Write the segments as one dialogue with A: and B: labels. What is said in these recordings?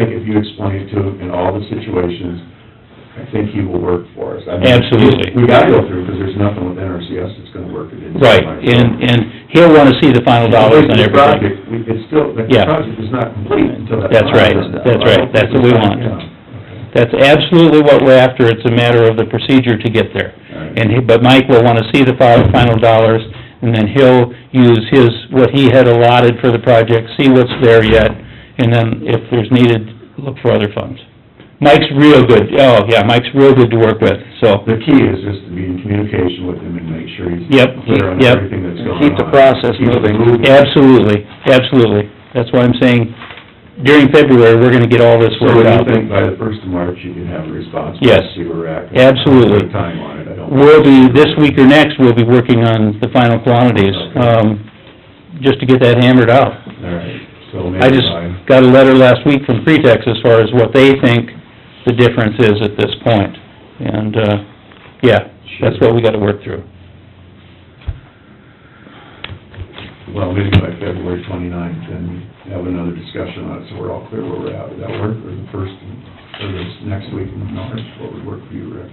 A: you explain to him in all the situations, I think he will work for us. I mean,
B: Absolutely.
A: We gotta go through, because there's nothing with NRCS that's gonna work against.
B: Right, and, and he'll wanna see the final dollars on
A: The
B: everything.
A: project, we- It's still, the
B: Yeah.
A: project is not complete until that.
B: That's right,
A: final is done.
B: that's right, that's what we want.
A: Yeah.
B: That's absolutely what we're after, it's a matter of the procedure to get there.
A: Alright.
B: And, he- but Mike will wanna see the final, final dollars, and then he'll use his, what he had allotted for the project, see what's there yet, and then if there's needed, look for other funds. Mike's real good, oh, yeah, Mike's real good to work with, so,
A: The key is just to be in communication with him and make sure he's
B: Yep,
A: clear on
B: yep.
A: everything that's going on.
C: Keep the process
A: Keep it
C: moving.
B: absolutely, absolutely. That's why I'm saying, during February, we're gonna get all this
A: So
B: worked
A: do you
B: out.
A: think by the first of March, you can have a response?
B: Yes.
A: See where we're at?
B: Absolutely.
A: Put a Time on it, I don't.
B: We'll be, this week or next, we'll be working on the final quantities,
A: Okay.
B: um, just to get that hammered out.
A: All right, so maybe
B: I just
A: by,
B: got a letter last week from Pretext as far as what they think the difference is at this point. And, uh, yeah, that's what we gotta work through.
A: well, maybe by February twenty-ninth, then have another discussion on it, so we're all clear where we're at. Would that work, or the first, or this next week in March, what would work for you, Rick?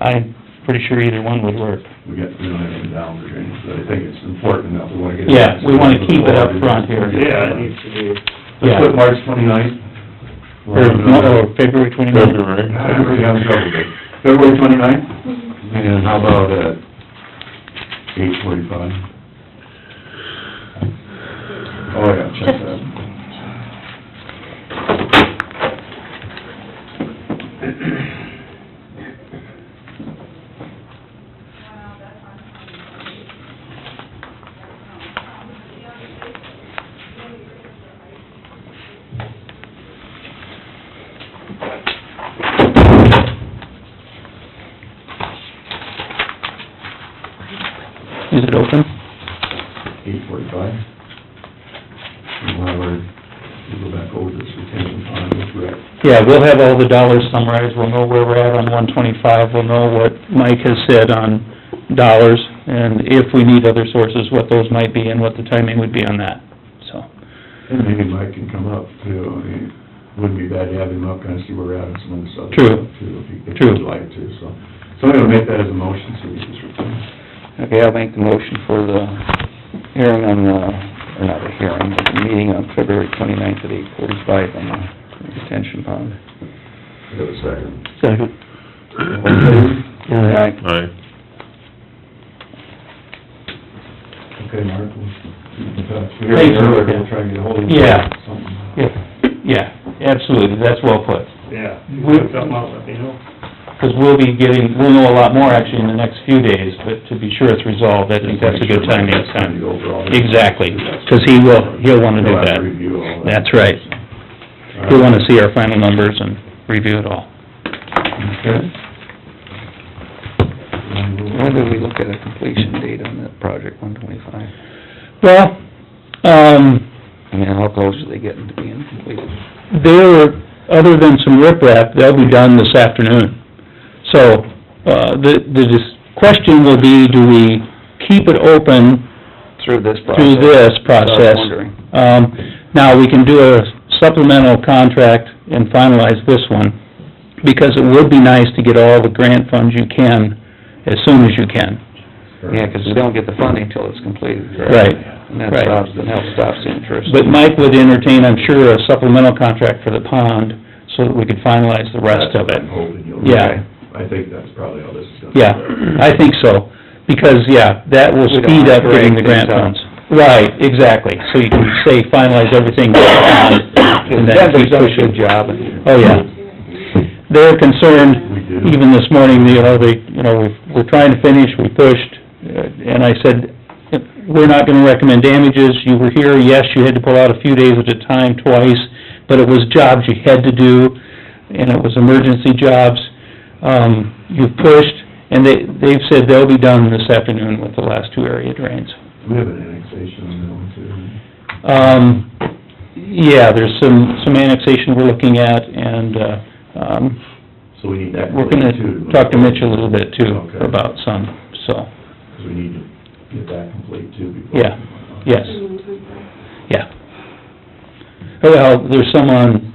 B: I'm pretty sure either one would work.
A: We got, we don't have any down for drainage, but I think it's important enough, we wanna get. it-
B: Yeah, we wanna keep it up front here.
A: Yeah, it needs to be. Let's put March twenty-ninth.
B: Or, or February twenty-ninth.
A: I really have trouble with it. February twenty-ninth? And how about at eight forty-five? Oh, yeah, check that.
B: Is it open?
A: Eight forty-five? And while we're, we go back over this retention pond with Rick.
B: Yeah, we'll have all the dollars summarized, we'll know where we're at on one twenty-five, we'll know what Mike has said on dollars, and if we need other sources, what those might be and what the timing would be on that, so.
A: And maybe Mike can come up too, I mean, wouldn't be bad to have him up, kind of see where we're at on some of this other
B: True.
A: stuff too, if he- if
B: True.
A: he'd like to, so. So I'm gonna make that as a motion, so we can just return.
C: Okay, I'll make the motion for the hearing on the, or not a hearing, but the meeting on February twenty-ninth at eight forty-five on the detention pond.
A: Have a second.
B: Second.
A: All in favor?
C: Aye.
D: Aye.
A: Okay, Mark, we'll keep in touch. We heard
B: Thanks,
A: earlier,
B: Rick.
A: we'll try and get ahold of you.
B: Yeah.
A: Something.
B: Yeah, yeah, absolutely, that's well put.
E: Yeah,
B: We-
E: put something out, let me know.
B: Because we'll be getting, we'll know a lot more actually in the next few days, but to be sure it's resolved, I think that's a good time next
A: Just make
B: time.
A: sure Mike's kinda
B: Exactly,
A: go over all this.
B: because he will, he'll want to do
A: He'll have to
B: that.
A: review all that.
B: That's right.
A: All
B: He'll want to see our final numbers and review it all.
A: Okay. And we'll-
C: When did we look at a completion date on that project, one twenty-five?
B: Well, um,
C: I mean, how close are they getting to being completed?
B: they're, other than some riprap, they'll be done this afternoon. So, uh, the, the dis- question will be, do we keep it open
C: Through this process?
B: through this
C: I
B: process?
C: was wondering.
B: Um, now, we can do a supplemental contract and finalize this one, because it would be nice to get all the grant funds you can as soon as you can.
C: Yeah, 'cause we don't get the funding till it's completed, correct?
B: Right,
C: And that
B: right.
C: stops, then helps stops interest.
B: But Mike would entertain, I'm sure, a supplemental contract for the pond, so that we could finalize the rest of
A: That's what
B: it.
A: I'm hoping you'll-
B: Yeah.
A: I think that's probably all this is gonna.
B: Yeah, I think so, because, yeah, that will
C: We don't
B: speed up
C: wanna
B: getting the
C: drag
B: grant
C: things out.
B: funds. Right, exactly, so you can say finalize everything and then
C: Debbie's
B: keep
C: done a
B: pushing.
C: good job.
B: Oh, yeah. They're concerned,
A: We do.
B: even this morning, you know, they, you know, we've- we're trying to finish, we pushed, uh, and I said, we're not gonna recommend damages, you were here, yes, you had to pull out a few days at a time twice, but it was jobs you had to do, and it was emergency jobs. Um, you've pushed, and they, they've said they'll be done this afternoon with the last two area drains.
A: We have an annexation on that one too.
B: Um, yeah, there's some, some annexation we're looking at, and, uh, um,
A: So we need that.
B: We're
A: completed, too,
B: gonna
A: move
B: talk to
A: forward.
B: Mitch a little bit too
A: Okay.
B: about some, so,
A: 'Cause we need to get that complete too before.
B: Yeah, yes, yeah. Oh, Well, there's some on